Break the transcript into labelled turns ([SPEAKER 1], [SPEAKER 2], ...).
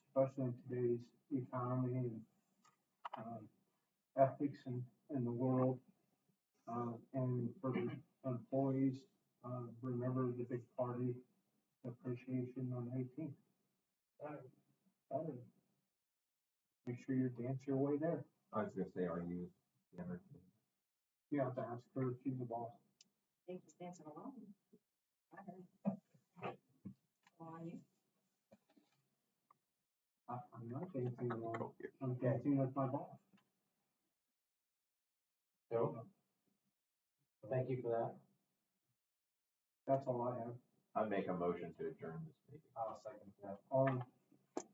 [SPEAKER 1] especially in today's economy and um, ethics in, in the world. Uh, and for the employees, uh, remember the big party appreciation on eighteenth. Make sure you dance your way there.
[SPEAKER 2] I was gonna say, are you? the other-
[SPEAKER 1] You have to ask her, she's the boss.
[SPEAKER 3] think he's dancing alone. I heard. How are you?
[SPEAKER 1] I- I'm not dancing alone.
[SPEAKER 2] Oh, yeah.
[SPEAKER 1] I'm dancing with my boss.
[SPEAKER 4] So, thank you for that.
[SPEAKER 1] That's all I have.
[SPEAKER 2] I make a motion to adjourn this meeting.
[SPEAKER 4] I'll second that.
[SPEAKER 1] All in